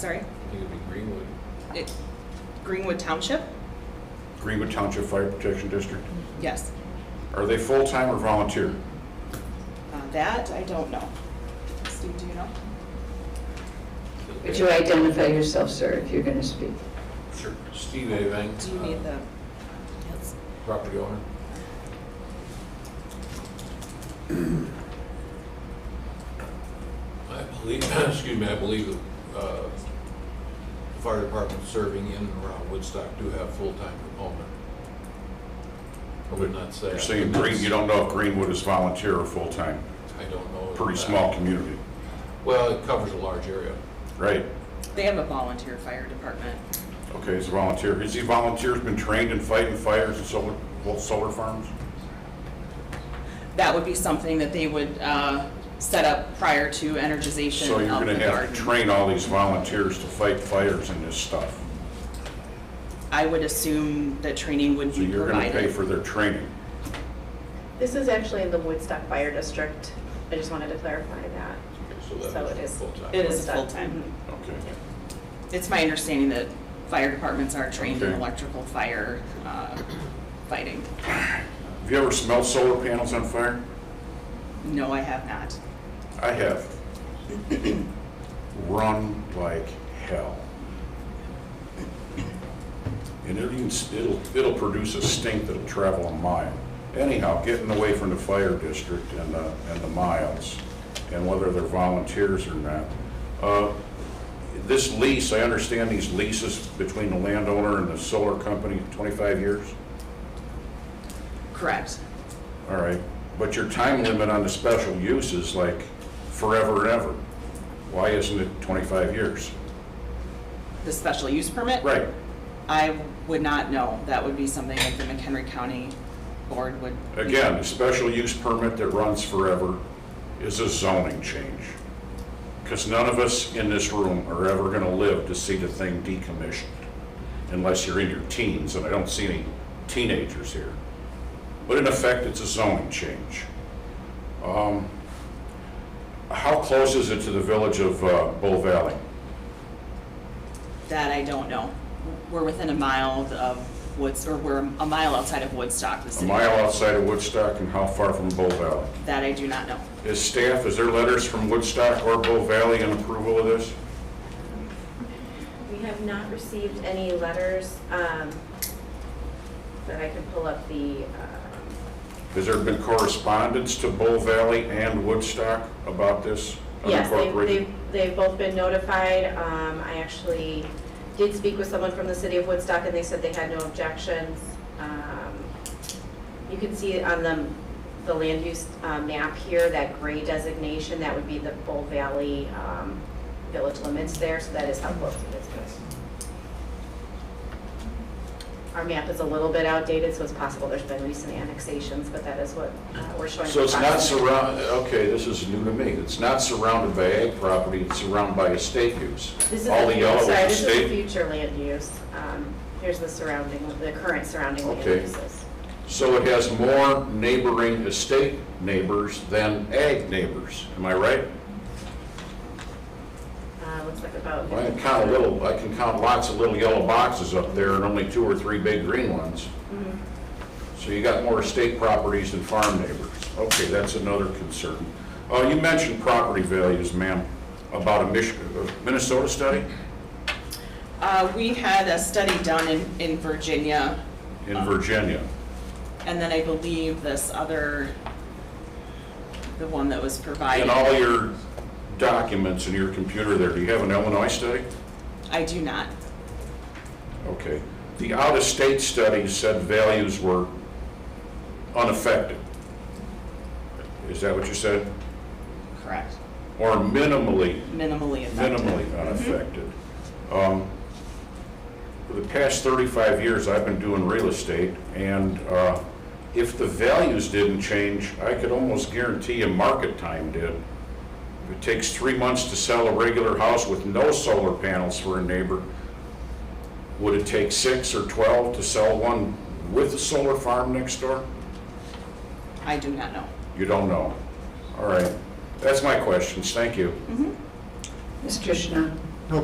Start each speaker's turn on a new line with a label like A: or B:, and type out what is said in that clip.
A: sorry,
B: I think it'd be Greenwood.
A: it, Greenwood Township?
C: Greenwood Township Fire Protection District.
A: Yes.
C: Are they full-time or volunteer?
A: Uh, That, I don't know. Steve, do you know?
D: Would you identify yourself, sir, if you're going to speak?
B: Sure. Steve Avang.
A: Do you need the? Yes.
B: uh, Property owner. I believe, excuse me, I believe the uh, fire department serving in and around Woodstock do have full-time component. I would not say.
C: You're saying Green, you don't know if Greenwood is volunteer or full-time.
B: I don't know.
C: Pretty
B: that.
C: small community,
B: Well, it covers a large area.
C: right?
A: They have a volunteer fire department.
C: Okay, he's a volunteer. Has he volunteers been trained in fighting fires and solar, well, solar farms?
A: That would be something that they would uh, set up prior to energization
C: So you're
A: of
C: gonna
A: the
C: have to
A: garden.
C: train all these volunteers to fight fires and this stuff.
A: I would assume that training would
C: So
A: be
C: you're gonna pay
A: provided.
C: for their training.
E: This is actually in the Woodstock Fire District. I just wanted to clarify that.
B: that
E: So it is-
B: full-time.
A: It is
E: Woodstock.
A: full-time.
C: Okay.
A: It's my understanding that fire departments are trained in
C: Okay.
A: electrical fire uh, fighting.
C: Have you ever smelled solar panels on fire?
A: No, I have not.
C: I have. Run like hell. And it'll, even- it'll, it'll produce a stink that'll travel a mile. Anyhow, getting away from the fire district and the, and the miles, and whether they're volunteers or not. Uh, This lease, I understand these leases between the landowner and the solar company, 25 years?
A: Correct.
C: All right, but your time limit on the special use is like forever and ever. Why isn't it 25 years?
A: The special use permit?
C: Right,
A: I would not know. That would be something that the McHenry County Board would.
C: again, a special use permit that runs forever is a zoning change. Because none of us in this room are ever going to live to see the thing decommissioned, unless you're in your teens, and I don't see any teenagers here. But in effect, it's a zoning change. Um, How close is it to the village of uh, Bull Valley?
A: That I don't know. We're within a mile of Woods, or we're a mile outside of Woodstock, the
C: a
A: city.
C: mile outside of Woodstock and how far from Bull Valley?
A: That I do not know.
C: Is staff, is there letters from Woodstock or Bull Valley in approval of this?
E: We have not received any letters, um, but I can pull up the, um,
C: Has there been correspondence to Bull Valley and Woodstock about this?
E: yes, they've-
C: unincorporated?
E: they've, they've both been notified. Um, I actually did speak with someone from the city of Woodstock and they said they had no objections. Um, You can see on the, the land use uh, map here, that gray designation, that would be the Bull Valley um, Village limits there, so that is how close it is. Our map is a little bit outdated, so it's possible there's been recent annexations, but that is what uh, we're showing.
C: So it's not
E: approximately.
C: surrounded, okay, this is new to me. It's not surrounded by ag property, it's surrounded by estate use.
E: This is,
C: All the yellow is
E: sorry, this is
C: estate.
E: future land use. Um, Here's the surrounding, the current surrounding land
C: Okay.
E: uses.
C: So it has more neighboring estate neighbors than ag neighbors, am I right?
E: Uh, Looks like about.
C: Well, I can count a little, I can count lots of little yellow boxes up there and only two or three big green ones.
E: Mhm.
C: So you got more estate properties than farm neighbors. Okay, that's another concern. Uh, you mentioned property values, ma'am, about a Mich- uh, Minnesota study
A: Uh, We had a study done in, in Virginia,
C: in Virginia.
A: and then I believe this other, the one that was
C: In
A: provided.
C: all your documents in your computer there, do you have an Illinois study?
A: I do not.
C: Okay. The out-of-state study said values were unaffected. Is that what you said?
A: Correct.
C: Or minimally
A: Minimally affected.
C: minimally unaffected. Um, For the past 35 years, I've been doing real estate, and uh, if the values didn't change, I could almost guarantee you market time did. If it takes three months to sell a regular house with no solar panels for a neighbor, would it take six or 12 to sell one with a solar farm next door?
A: I do not know.
C: You don't know. All right. That's my questions. Thank you.
D: Mr. Schnell?